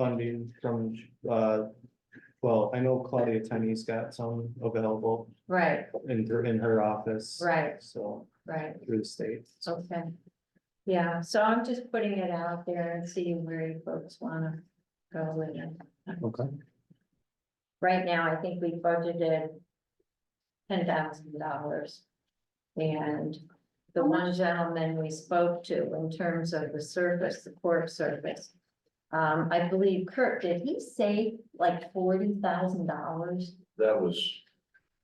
funding from, uh, well, I know Claudia Tenney's got some available right, in, her- in her office. Right. So, right, through the state. okay. Yeah, so I'm just putting it out there and seeing where you folks wanna go with it. Okay. Right now, I think we budgeted ten thousand dollars. And the one gentleman we spoke to in terms of the surface, the court surface. Um, I believe Kurt, did he say like forty thousand dollars? That was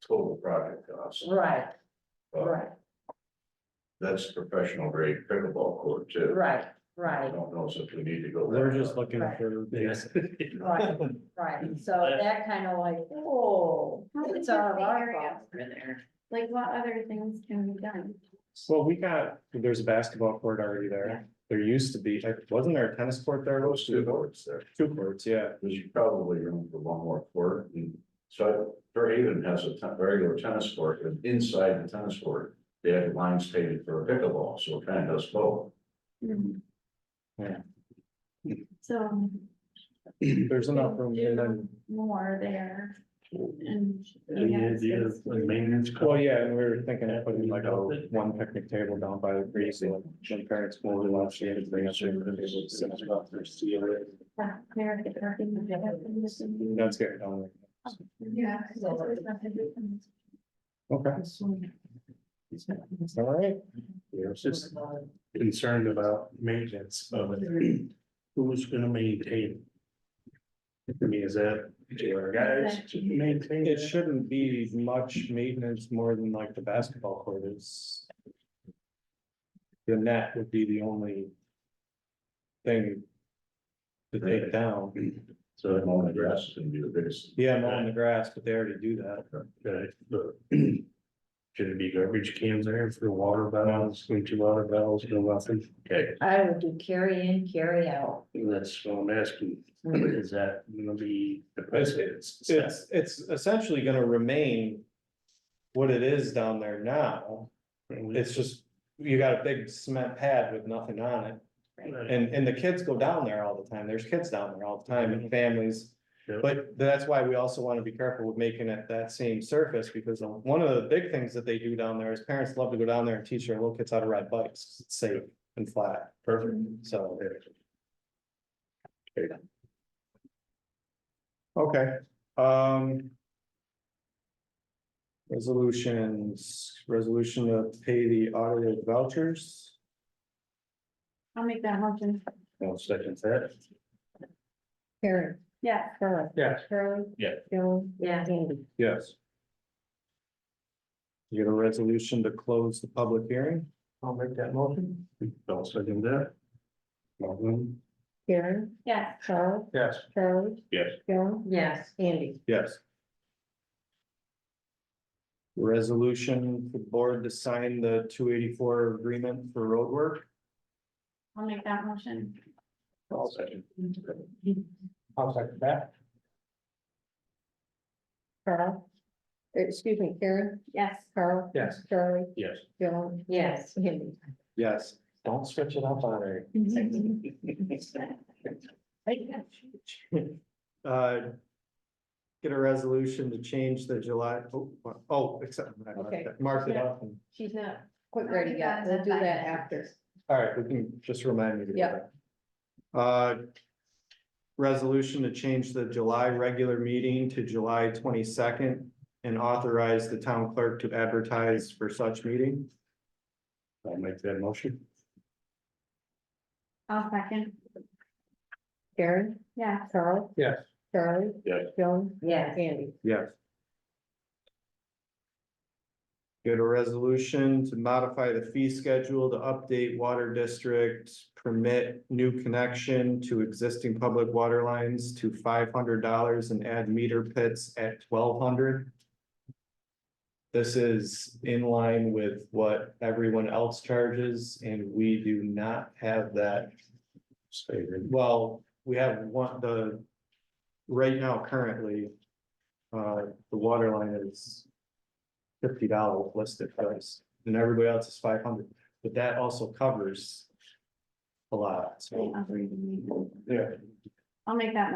total project cost. Right, Uh, right, That's professional grade pickleball court too. right, I right, don't know if we need to go. that We're just route. looking Right. for, Yes. right, right. So that kind of like, whoa, How it's big's all the our area? fault. We're there. Like what other things can be done? well, we got, there's a basketball court already there. There used to be, wasn't there a tennis court there? Those two courts there, Two courts, yeah. there's probably room for one more court. And So Fairhaven has a ten- regular tennis court and inside the tennis court, they have lines painted for pickleball, so it kind of does both. Yeah. So um, There's enough room and then, more there and. And the idea of a maintenance. well, yeah, and we were thinking of putting like a one picnic table down by the breeze, so like my parents will watch the end of the. That's good. don't Yeah. worry. Okay, all right. Yeah, it's just concerned about maintenance of it. Who's gonna maintain? it? I mean, is that, do our guys maintain? It shouldn't be much maintenance more than like the basketball court is. The net would be the only. Thing. To take down, So Mowing it won't the address. grass is gonna be the biggest. yeah, mowing the grass, but they already do that. Okay, but Uh, Should it be garbage cans there for water valves, empty water valves, no nothing? Okay, I would do carry in, carry out. that's what I'm asking. Mm. Is that gonna be the president? It's, it's essentially gonna remain. What it is down there now, it's just, you got a big cement pad with nothing on it. And, and the kids go down there all the time, there's kids down there all the time and families. Yeah. But that's why we also wanna be careful with making it that same surface, because one of the big things that they do down there is parents love to go down there and teach their little kids how to ride bikes, 'cause it's safe and flat. Perfect. So. Okay, um. Resolutions, resolution to pay the audited vouchers. I'll make that motion. One second, that. Carry. Yeah. Philip. Yes. Charlie. Yeah. Bill. Yeah. Andy. Yes. You get a resolution to close the public hearing? I'll make that motion. I'll second that. Malvin? Karen. Yeah. Charlie. Yes. Charlie. Yes. Bill. Yes. Andy. Yes. Resolution for board to sign the two eighty-four agreement for roadwork. I'll make that motion. I'll second. I'll second that. Carl. Excuse me, Karen. Yes. Carl. Yes. Charlie. Yes. Bill. Yes. Andy. Yes. Don't switch it up on her. Uh. Get a resolution to change the July, oh, oh, except, I marked Okay. that- marked it up. and- She's not quite ready yet. We'll do that after. All right, we can just remind me to do Yeah. that. Uh. Resolution to change the July regular meeting to July twenty-second and authorize the town clerk to advertise for such meeting. I'll make that motion. I'll second. Karen. Yeah. Carl. Yes. Charlie. Yes. Bill. Yes. Andy. Yes. Get a resolution to modify the fee schedule to update water district, permit new connection to existing public water lines to five hundred dollars and add meter pits at twelve hundred. This is in line with what everyone else charges, and we do not have that Say that. well, we have one, the, right now currently, uh, the water line is fifty dollar listed price, and everybody else is five hundred, but that also covers a lot, so. Oh. I'll read the meeting. Yeah. I'll make that